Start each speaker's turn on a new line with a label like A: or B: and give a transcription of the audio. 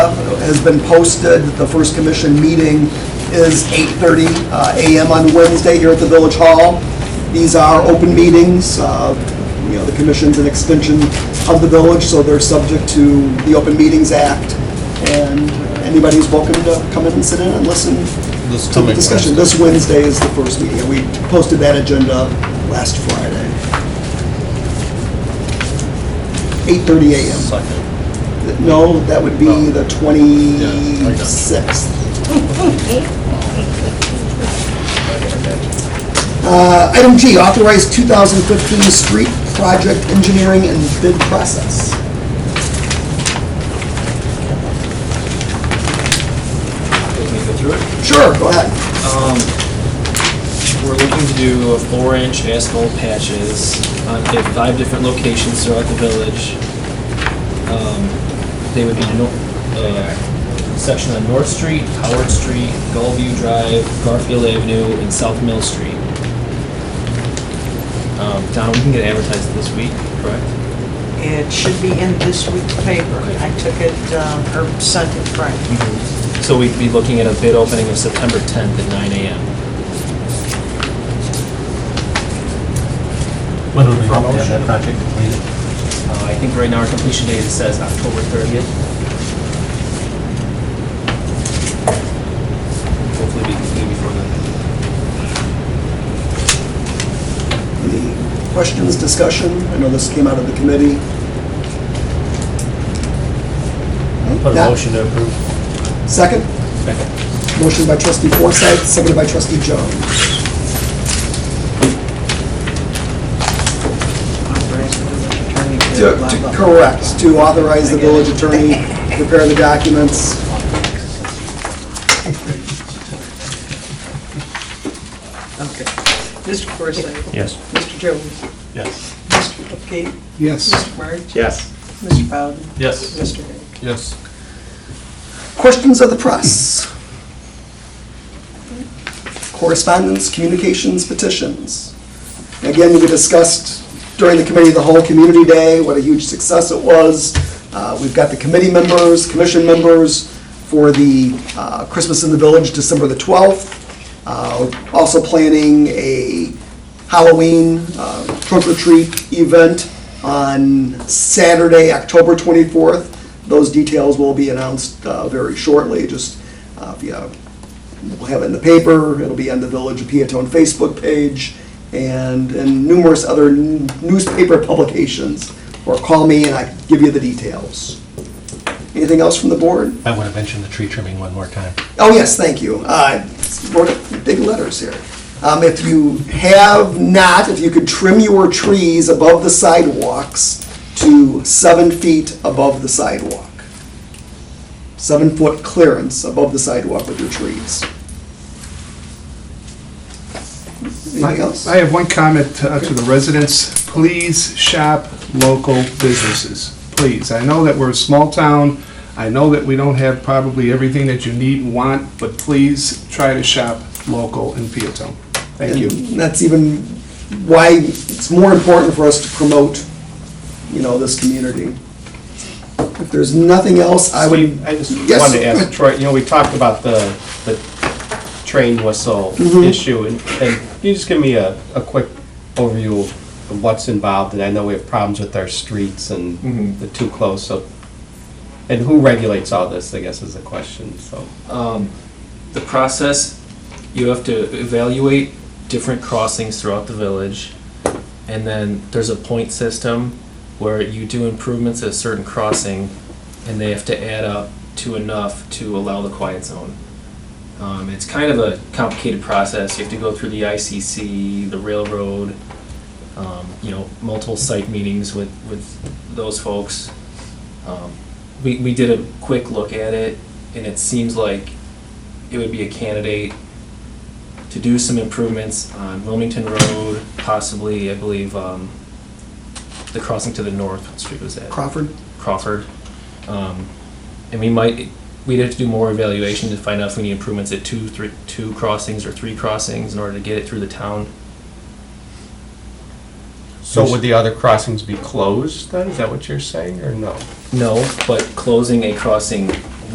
A: has been posted. The first commission meeting is 8:30 uh, a.m. on Wednesday here at the Village Hall. These are open meetings. Uh, You know, the commission's an extension of the village, so they're subject to the Open Meetings Act. And anybody's welcome to come in and sit in and listen
B: This
A: to the
B: coming
A: discussion. This Wednesday is the first meeting. We posted that agenda last Friday. 8:30 a.m.
B: Second.
A: No, that would
B: No.
A: be the 26th. Uh, Item G, authorize 2015 street project engineering and bid process.
C: Let me go through it.
A: Sure, go ahead.
C: We're looking to do four-inch asphalt patches on- at five different locations throughout the village. Um, They would be no- uh, section on North Street, Howard Street, Gullview Drive, Garfield Avenue, and South Mill Street. Um, Donna, we can get advertised this week, correct?
D: It should be in this week's paper. I took it, um, or sent it Friday.
C: So we'd be looking at a bid opening of September 10th at 9 AM.
E: When would we hope to have that project completed?
C: Uh, I think right now our completion date says October 30th. Hopefully be completed before then.
A: Any questions, discussion? I know this came out of the committee.
E: Put a
A: Yeah.
E: motion to approve.
A: Second? Motion by trustee Forsythe, seconded by trustee Jones.
D: Authorize the village attorney to
A: To-
D: blah, blah,
A: to-
D: blah.
A: Correct, to authorize the village attorney to prepare the documents.
D: Okay. Mr. Forsythe?
E: Yes.
D: Mr. Jones?
E: Yes.
D: Mr. Cupcake?
A: Yes.
D: Mr. March?
E: Yes.
D: Mr. Bowden?
E: Yes.
D: Mr. Hay?
B: Yes.
A: Questions of the press? Correspondence, communications, petitions. Again, we discussed during the committee, of the whole community day, what a huge success it was. Uh, We've got the committee members, commission members for the uh, Christmas in the Village, December the 12th. Uh, we're Also planning a Halloween uh, trunk or treat event on Saturday, October 24th. Those details will be announced uh, very shortly, just, uh, if you uh, We'll have it in the paper, it'll be on the Village of Peatone Facebook page, and, and numerous other n- newspaper publications. Or call me and I can give you the details. Anything else from the board?
E: I want to mention the tree trimming one more time.
A: Oh, yes, thank you. I wrote it big letters here. Um, If you have not, if you could trim your trees above the sidewalks to seven feet above the sidewalk. Seven-foot clearance above the sidewalk with your trees. Anything else?
F: I have one comment uh, to the residents. Please shop local businesses, please. I know that we're a small town. I know that we don't have probably everything that you need and want, but please try to shop local in Peatone. Thank you.
A: And that's even why it's more important for us to promote, you know, this community. If there's nothing else, I would.
G: Steve, I just
A: Yes.
G: wanted to ask Troy, you know, we talked about the, the train whistle
A: Mm-hmm.
G: issue, and, and can you just give me a, a quick overview of what's involved, and I know we have problems with our streets
A: Mm-hmm.
G: and the too close, so, and who regulates all this, I guess is the question, so.
C: um, The process, you have to evaluate different crossings throughout the village. And then there's a point system where you do improvements at a certain crossing and they have to add up to enough to allow the quiet zone. Um, it's kind of a complicated process. You have to go through the ICC, the railroad, um, you know, multiple site meetings with, with those folks. Um, we, we did a quick look at it and it seems like it would be a candidate to do some improvements on Wilmington Road, possibly, I believe, um, the crossing to the north, what street was that?
A: Crawford?
C: Crawford. Um, and we might, we'd have to do more evaluation to find out if we need improvements at two, three, two crossings or three crossings in order to get it through the town.
G: So would the other crossings be closed then, is that what you're saying, or no?
C: No, but closing a crossing